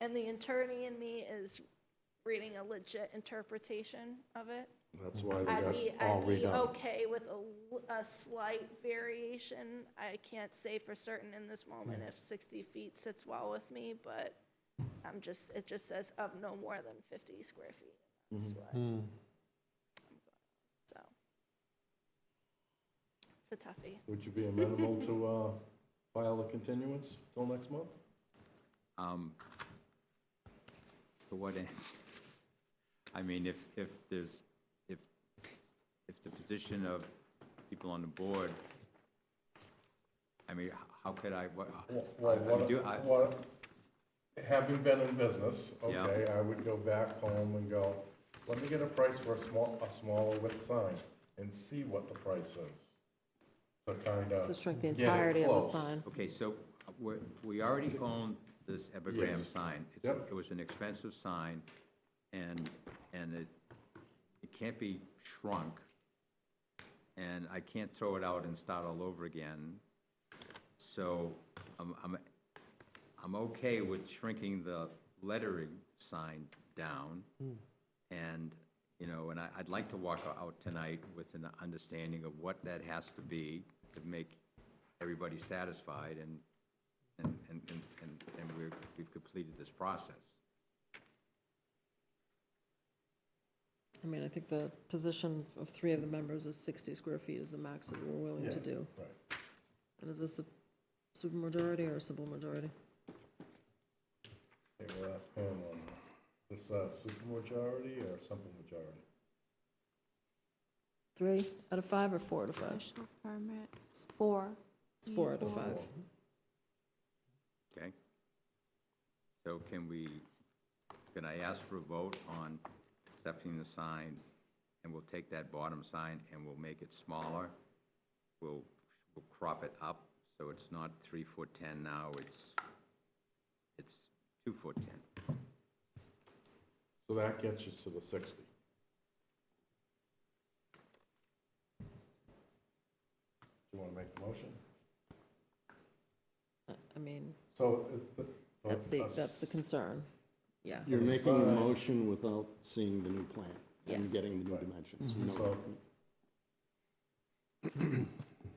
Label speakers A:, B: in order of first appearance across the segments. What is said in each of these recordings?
A: And the attorney in me is reading a legit interpretation of it.
B: That's why
A: I'd
B: they
A: be,
B: got all
A: I'd be
B: redone.
A: okay with a l- a, slight variation. I can't say for certain in this moment if 60 feet sits well with me, but I'm just, it just says of no more than 50 square feet.
B: Mm-hmm.
A: That's what, so. It's a toughie.
B: Would you be amenable to uh, file a continuance till next month?
C: Um, To what ends? I mean, if, if there's, if, if the position of people on the board, I mean, h- how could I, what?
B: Well,
C: I- I
B: what-
C: do- I-
B: what- Having been in business,
C: Yeah.
B: okay, I would go back home and go, let me get a price for a small, a smaller width sign and see what the price is. So kind of.
D: To shrink the entirety of the sign.
C: Okay, so we, we already own this epigram
B: Yes.
C: sign. It's-
B: Yep.
C: It was an expensive sign, and, and it, it can't be shrunk. And I can't throw it out and start all over again. So I'm, I'm, I'm okay with shrinking the lettering sign down. And, you know, and I, I'd like to walk out tonight with an understanding of what that has to be to make everybody satisfied and, and, and, and- and, and we're, we've completed this process.
D: I mean, I think the position of three of the members is 60 square feet is the max that we're willing to
B: Yeah,
D: do.
B: right.
D: And is this a supermajority or a simple majority?
B: They were asked Pam on this uh, supermajority or simple majority?
D: Three out of five or four out of five?
E: Special permits, four.
D: It's four out of five.
C: Okay? So can we, can I ask for a vote on accepting the sign? And we'll take that bottom sign and we'll make it smaller. We'll, we'll crop it up, so it's not three foot ten now, it's, it's two foot ten.
B: So that gets you to the sixty. Do you want to make the motion?
D: I- I mean,
B: So. it- the-
D: that's the,
B: uh,
D: that's the concern. Yeah.
F: You're making a
B: Alright.
F: motion without seeing the new plan and getting the new dimensions. You know,
B: So the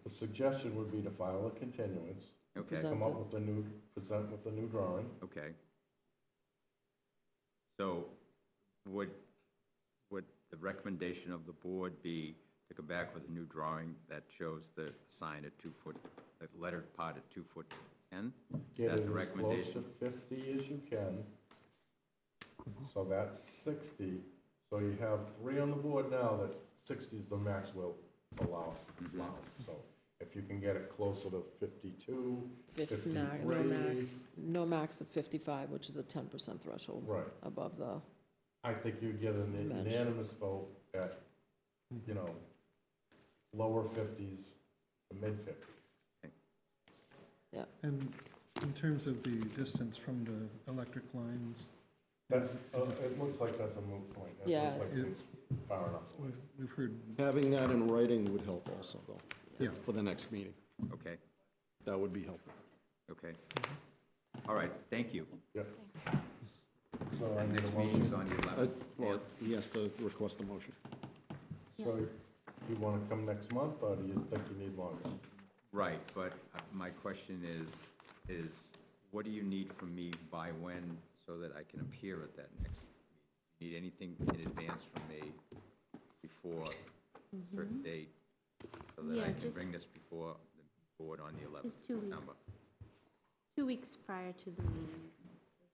B: suggestion would be to file a continuance,
C: Okay?
D: Present
B: come up
D: it.
B: with a new, present with a new drawing.
C: Okay. So would, would the recommendation of the board be to come back with a new drawing that shows the sign at two foot, the lettered part at two foot ten? Is
B: Get
C: that
B: it
C: the
B: as close to
C: recommendation?
B: fifty as you can. So that's sixty, so you have three on the board now that sixty is the max will allow,
C: Mm-hmm.
B: allow. So if you can get it closer to fifty-two,
D: Fif-
B: fifty-three.
D: ma- No max, no max of 55, which is a 10% threshold.
B: Right.
D: Above the,
B: I think you'd get an
D: Match.
B: unanimous vote at, you know, lower fifties to mid fifties.
D: yeah.
G: And in terms of the distance from the electric lines,
B: That's, uh, it looks like that's a moot point. It
D: Yeah,
B: looks like
G: it's-
B: it's far enough. away.
G: we've, we've heard,
F: Having that in writing would help also, though,
G: Yeah.
F: for the next meeting.
C: Okay,
F: That would be helpful.
C: okay.
B: Mm-hmm.
C: All right, thank you.
B: Yep. So I need a
C: Next meeting's
B: motion.
C: on the
F: Uh,
C: eleventh.
F: Well, he has to request the motion.
B: So you want to come next month or do you think you need longer?
C: Right, but uh, my question is, is what do you need from me by when so that I can appear at that next? meeting? You Need anything in advance from me before a certain date? So that
E: Mm-hmm. Yeah,
C: I can
E: just-
C: bring this before the board on the 11th
E: Just two
C: of
E: weeks.
C: December?
E: Two weeks prior to the meetings.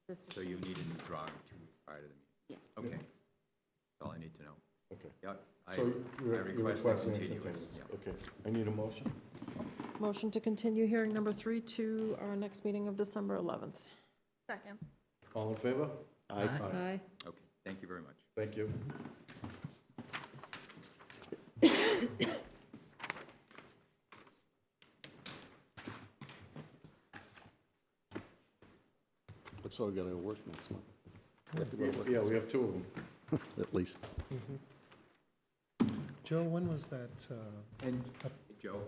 E: is
C: So you
E: sufficient.
C: need a new drawing two weeks prior to the
E: Yeah.
C: meeting? Okay, that's all I need to know.
B: Okay.
C: Yeah, I
B: So
C: I
B: you're you're
C: request a
B: requesting a
C: continuance,
B: continuance.
C: yeah.
B: Okay. I need a motion.
D: Motion to continue hearing number three to our next meeting of December 11th.
A: Second.
B: All in favor?
F: I
D: Aye.
C: Okay, thank you very much.
B: Thank you.
F: That's why we gotta work next month,
B: Yeah, we have two of them.
F: at least.
G: Joe, when was that, uh,
E: Mm.
C: And Joe,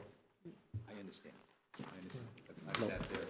C: I understand, I understand. I sat there